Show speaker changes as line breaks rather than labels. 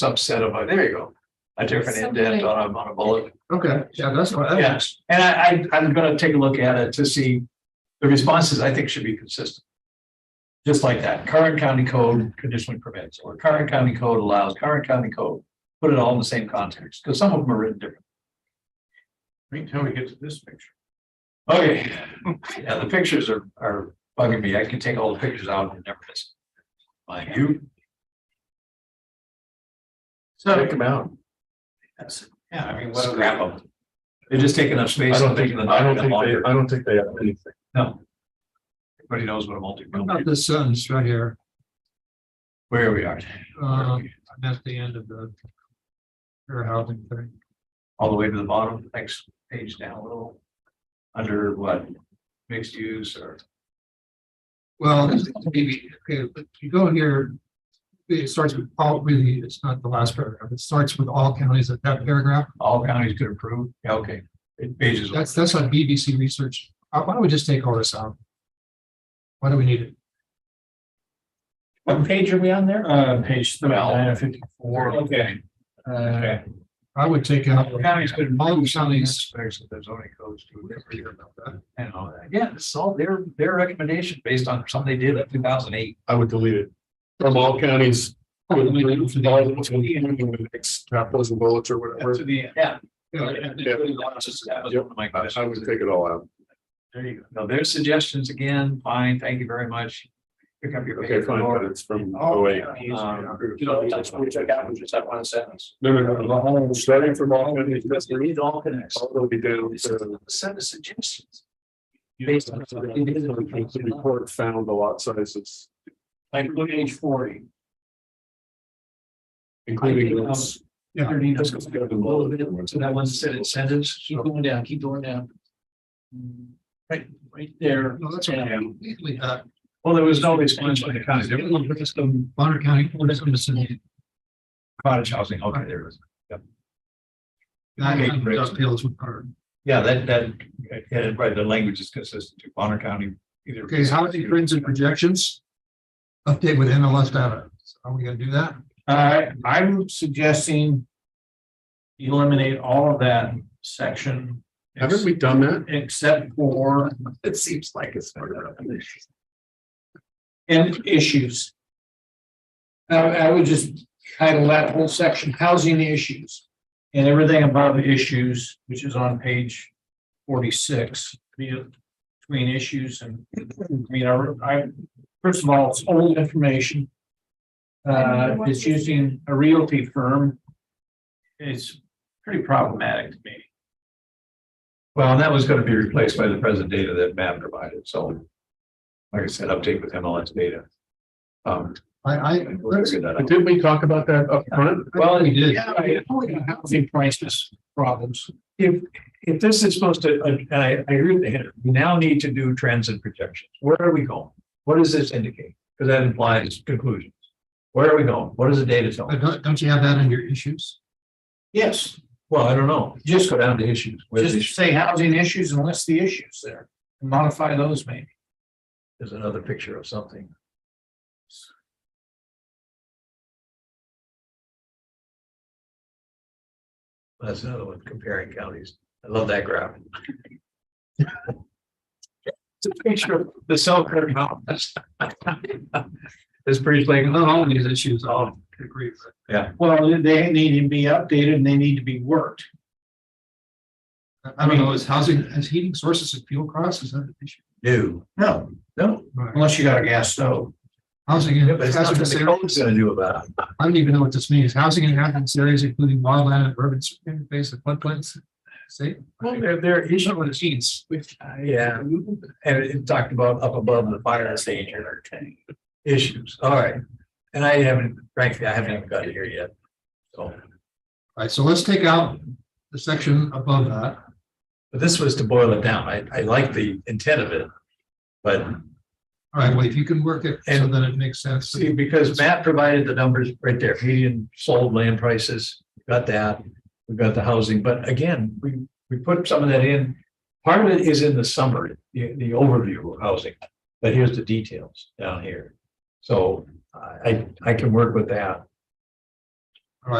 subset of, a- there you go. A different indent on a, on a bullet.
Okay, yeah, that's what, that's-
Yes, and I, I, I'm gonna take a look at it to see, the responses I think should be consistent. Just like that, current county code conditionally permits, or current county code allows, current county code, put it all in the same context, because some of them are written different.
Wait till we get to this picture.
Okay, Oh, yeah, the pictures are, are bugging me, I can take all the pictures out and never miss. Mind you. So,
Check them out.
that's- yeah, I mean, what scrap them? They're just taking up space. and making the
I don't think
document
they,
longer.
I don't think they have anything.
No. Everybody knows what a multi,
what about the sentence right here,
where we are,
uh, at the end of the. Fair housing thing,
all the way to the bottom, next page down a little. Under what? Mixed use or,
well, this is maybe, okay, but you go here. It starts with all, really, it's not the last paragraph, it starts with all counties at that paragraph,
all counties could approve, yeah, okay, It pages.
that's, that's on BBC research, Uh, why don't we just take all this out? Why do we need it?
What page are we on there?
Uh, page
Well,
fifty-four.
Okay.
Okay.
I would take out.
Counties could
Uh, All
approve some of these
counties,
aspects of the zoning codes to agree about that. And all that, yeah, it's all their, their recommendation based on something they did in two thousand eight.
I would delete it. From all counties. Capitals and bullets or whatever.
the. Yeah.
Yeah,
That was one of my
I, I
questions.
would take it all out.
There you go. Now, there's suggestions again. Fine, thank you very much. Pick up your.
Okay, fine, but it's from oh eight.
Um, You know, that's what we took out, was just that one sentence.
No, no, no, the whole- starting from all counties,
Because you need all connects.
all will be down to.
Send us suggestions. Based on-
The report found the lot sizes,
Like page forty. I
including.
think, um,
those.
Yeah.
Underneath those, go to the lower bit, So that one sentence, sentence, keep going down, keep going down. Mm, Right, right there.
No, that's okay. Completely, uh,
Well, there was no response by the county. There was
Bonner County, what is it?
cottage housing. Okay, there it is.
That dovetails with our-
Yeah, that, that, yeah, right, the language is consistent to Bonner County. either-
Okay, housing trends and projections. Update with MLS data. So Are we gonna do that?
Uh, I'm suggesting. Eliminate all of that section.
Haven't we done that?
Except for
It seems like it's. part of it.
end issues. I, I would just title that whole section, housing issues. And everything above issues, which is on page forty-six, be- between issues and, I mean, I- I, first of all, it's old information. Uh, it's using a realty firm. It's pretty problematic to me.
Well, and that was gonna be replaced by the present data that Matt provided, so. Like I said, update with MLS data. Um.
I, I,
we'll figure that
But
out.
Didn't we talk about that up front?
Well,
we did.
Yeah, I only got housing prices problems.
If, if this is supposed to, and I, I agree with Henry, we now need to do trends and projections. Where are we going? What does this indicate? Because that implies conclusions. Where are we going? What does the data tell?
But
us?
don't, don't you have that in your issues?
Yes.
Well, I don't know. Just go down to issues. Where's the
Just
issue?
say housing issues and list the issues there, and modify those maybe.
There's another picture of something. That's another one comparing counties. I love that graph. It's a picture of the Selkirk Mountains. This pretty like,
Not all of these issues, I
oh,
agree with.
Well, they need to be updated and they need to be worked.
I- I don't know, is housing, is heating sources of fuel costs, is that an issue?
no,
No,
no.
unless you got a gas stove.
Housing. in
Yeah, but it's not
hazardous
what the
areas.
code's gonna do about it.
I don't even know what this means. Housing in hazardous areas, including wildland and urban interface of floodplains. See?
Well, there, there are issues.
What it means.
Which, uh, yeah, and it talked about up above the fire station or issues, all right. And I haven't, frankly, I haven't even got here yet. So,
All right, so let's take out the section above that.
but this was to boil it down, I, I like the intent of it. But
All right, well, if you can work it so
And-
that it makes sense.
see, because Matt provided the numbers right there, median sold land prices, got that, we've got the housing, but again, we, we put some of that in. Part of it is in the summary, the, the overview of housing, but here's the details down here. So I, I can work with that.